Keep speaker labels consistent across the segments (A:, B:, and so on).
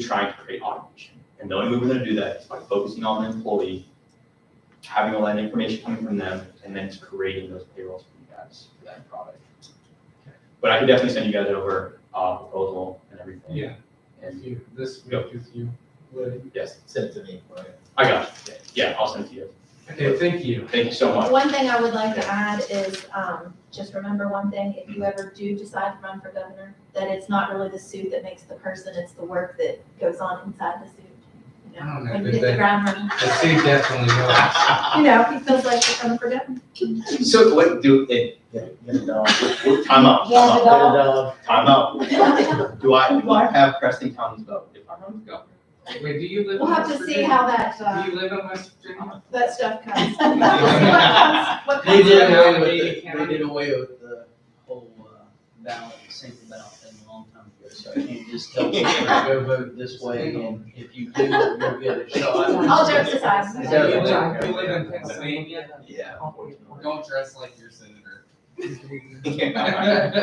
A: trying to create automation. And the only way we're gonna do that is by focusing on the employee, having all that information coming from them, and then creating those payrolls for you guys for that product. But I can definitely send you guys over, uh, proposal and everything.
B: Yeah.
A: And,
B: you, this
A: Go.
B: week is you. Woody.
A: yes,
C: Send it to me, right?
A: I got you. Yeah, I'll send it to you.
B: Okay, thank you.
A: Thank you so much.
D: One thing I would like to add is, um, just remember one thing, if you ever do decide to run for governor, that it's not really the suit that makes the person, it's the work that goes on inside the suit. You
B: I
D: know,
B: don't know,
D: when you
B: but
D: hit the
B: that-
D: ground running,
B: The city definitely knows.
D: you know, he feels like he's coming for governor.
A: So what do, eh,
C: Get, get a dog. Get
A: time out, time
C: a
A: out,
C: dog.
A: time out. Do I, do I have Preston County's vote if I run for governor?
B: Wait, do you live in
D: We'll have
B: West
D: to see
B: Virginia?
D: how that,
B: Do
D: uh,
B: you live in West Virginia?
D: that stuff comes. What comes- what
C: They
D: comes
C: did
D: from that.
C: away with,
B: Yeah.
C: the- they did away with the whole, uh, ballot, single ballot thing a long time ago, so you can just tell people, go vote this way, and if you do, you'll get a shot.
D: All jokes aside.
B: Do
C: Is
B: you
C: that-
B: live, you live in Pennsylvania?
A: Yeah.
B: Don't dress like your senator.
A: Yeah,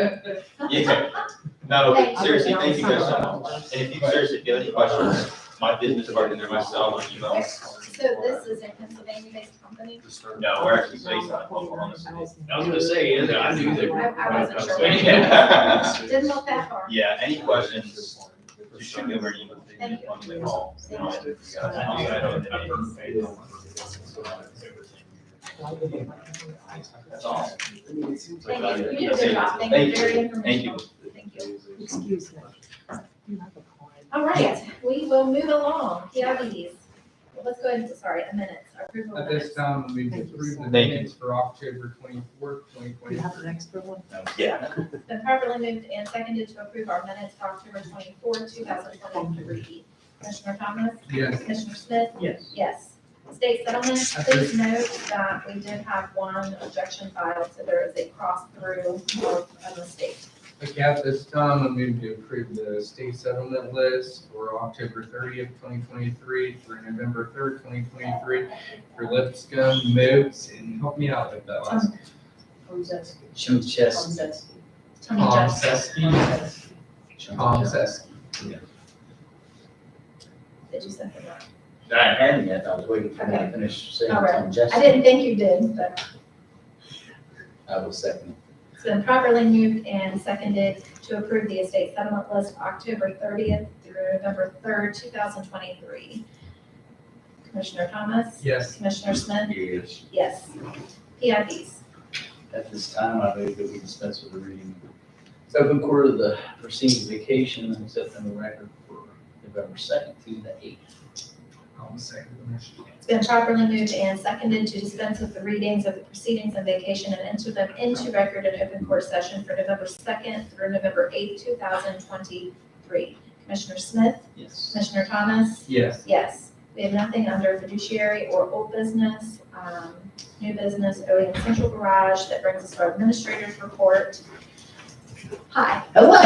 A: no,
D: Thank you.
A: seriously, thank you guys so much. And if you seriously, if you have any questions, my business card in there, my cell, my email.
D: So this is a Pennsylvania-based company?
A: No, we're actually based out of Oklahoma City.
E: I was gonna say, yeah, I knew they were.
D: I- I wasn't sure.
A: Yeah.
D: Didn't look that far.
A: Yeah, any questions, just shoot me over an email.
D: Thank you.
A: On the call. you know, you guys, I don't know. That's all.
D: Thank you, you did a good job, thank you, very
A: Thank you.
D: informational, thank you.
E: Excuse me. You have a client.
D: All right, we will move along, PIDs. Well, Let's go into, sorry, a minute, approval of
B: At
D: minutes.
B: this time, we approve the
A: Thank you.
B: minutes for October twenty-fourth, twenty
E: You have an
B: twenty-three.
E: extra one?
A: Yeah.
D: It's Been properly moved and seconded to approve our minutes for October twenty-four, two thousand twenty-three. Commissioner Thomas?
B: Yes,
D: Commissioner Smith?
C: Yes.
D: Yes. State settlement, please note that we did have one objection filed, so there is a cross-through of a mistake.
B: okay, at this time, I move to approve the state settlement list for October thirtieth, twenty twenty-three through November third, twenty twenty-three for Lipscomb, Moats, and help me out with that last.
E: Oh,
C: Show chest.
D: Tony Judge,
B: Seskey, Tom Seskey.
D: did you second that?
C: I hadn't yet, I was waiting for him to finish saying
D: All right.
C: something, just.
D: I didn't think you did, but.
C: I was second.
D: It's been properly moved and seconded to approve the estate settlement list October thirtieth through November third, two thousand twenty-three. Commissioner Thomas?
B: Yes.
D: Commissioner Smith?
C: Yes.
D: Yes. PIDs.
C: At this time, I move that we dispense with the reading. It's open court of the proceeding vacation and accept on the record for November second through the eighth.
B: I'll second the motion.
D: It's been properly moved and seconded to dispense with the readings of the proceedings and vacation and enter them into record in open court session for November second through November eighth, two thousand twenty-three. Commissioner Smith?
C: Yes.
D: Commissioner Thomas?
B: Yes.
D: Yes, we have nothing under fiduciary or old business, um, new business, OEM Central Garage, that brings us to our administrator's report. Hi.
C: Hello.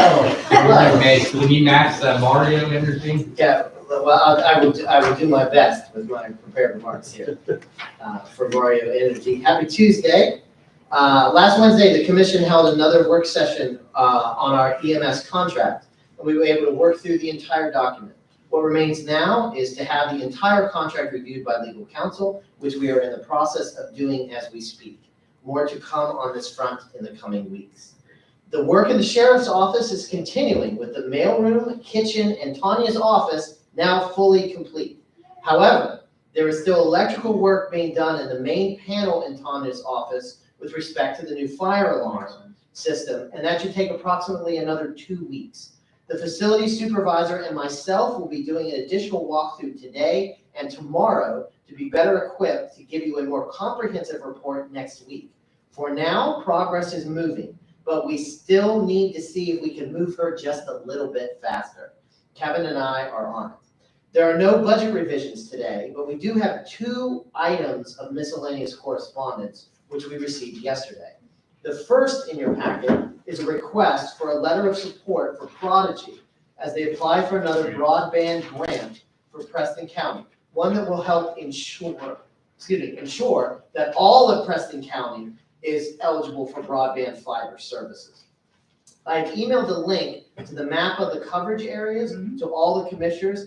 B: Can you make- can you match that Mario energy?
F: Yeah, well, I I will, do- I will do my best with my prepared remarks here uh, for Mario Energy. Happy Tuesday. Uh, Last Wednesday, the commission held another work session uh, on our EMS contract. and We were able to work through the entire document. What remains now is to have the entire contract reviewed by legal counsel, which we are in the process of doing as we speak. More to come on this front in the coming weeks. The work in the sheriff's office is continuing with the mailroom, kitchen, and Tanya's office now fully complete. However, there is still electrical work being done in the main panel in Tanya's office with respect to the new fire alarm system, and that should take approximately another two weeks. The facility supervisor and myself will be doing an additional walkthrough today and tomorrow to be better equipped to give you a more comprehensive report next week. For now, progress is moving but we still need to see if we can move her just a little bit faster. Kevin and I are on it. There are no budget revisions today, but we do have two items of miscellaneous correspondence, which we received yesterday. The first in your packet is a request for a letter of support for Prodigy as they apply for another broadband grant for Preston County, one that will help ensure, excuse me, ensure that all of Preston County is eligible for broadband fiber services. I've emailed the link to the map of the coverage areas, so all the commissioners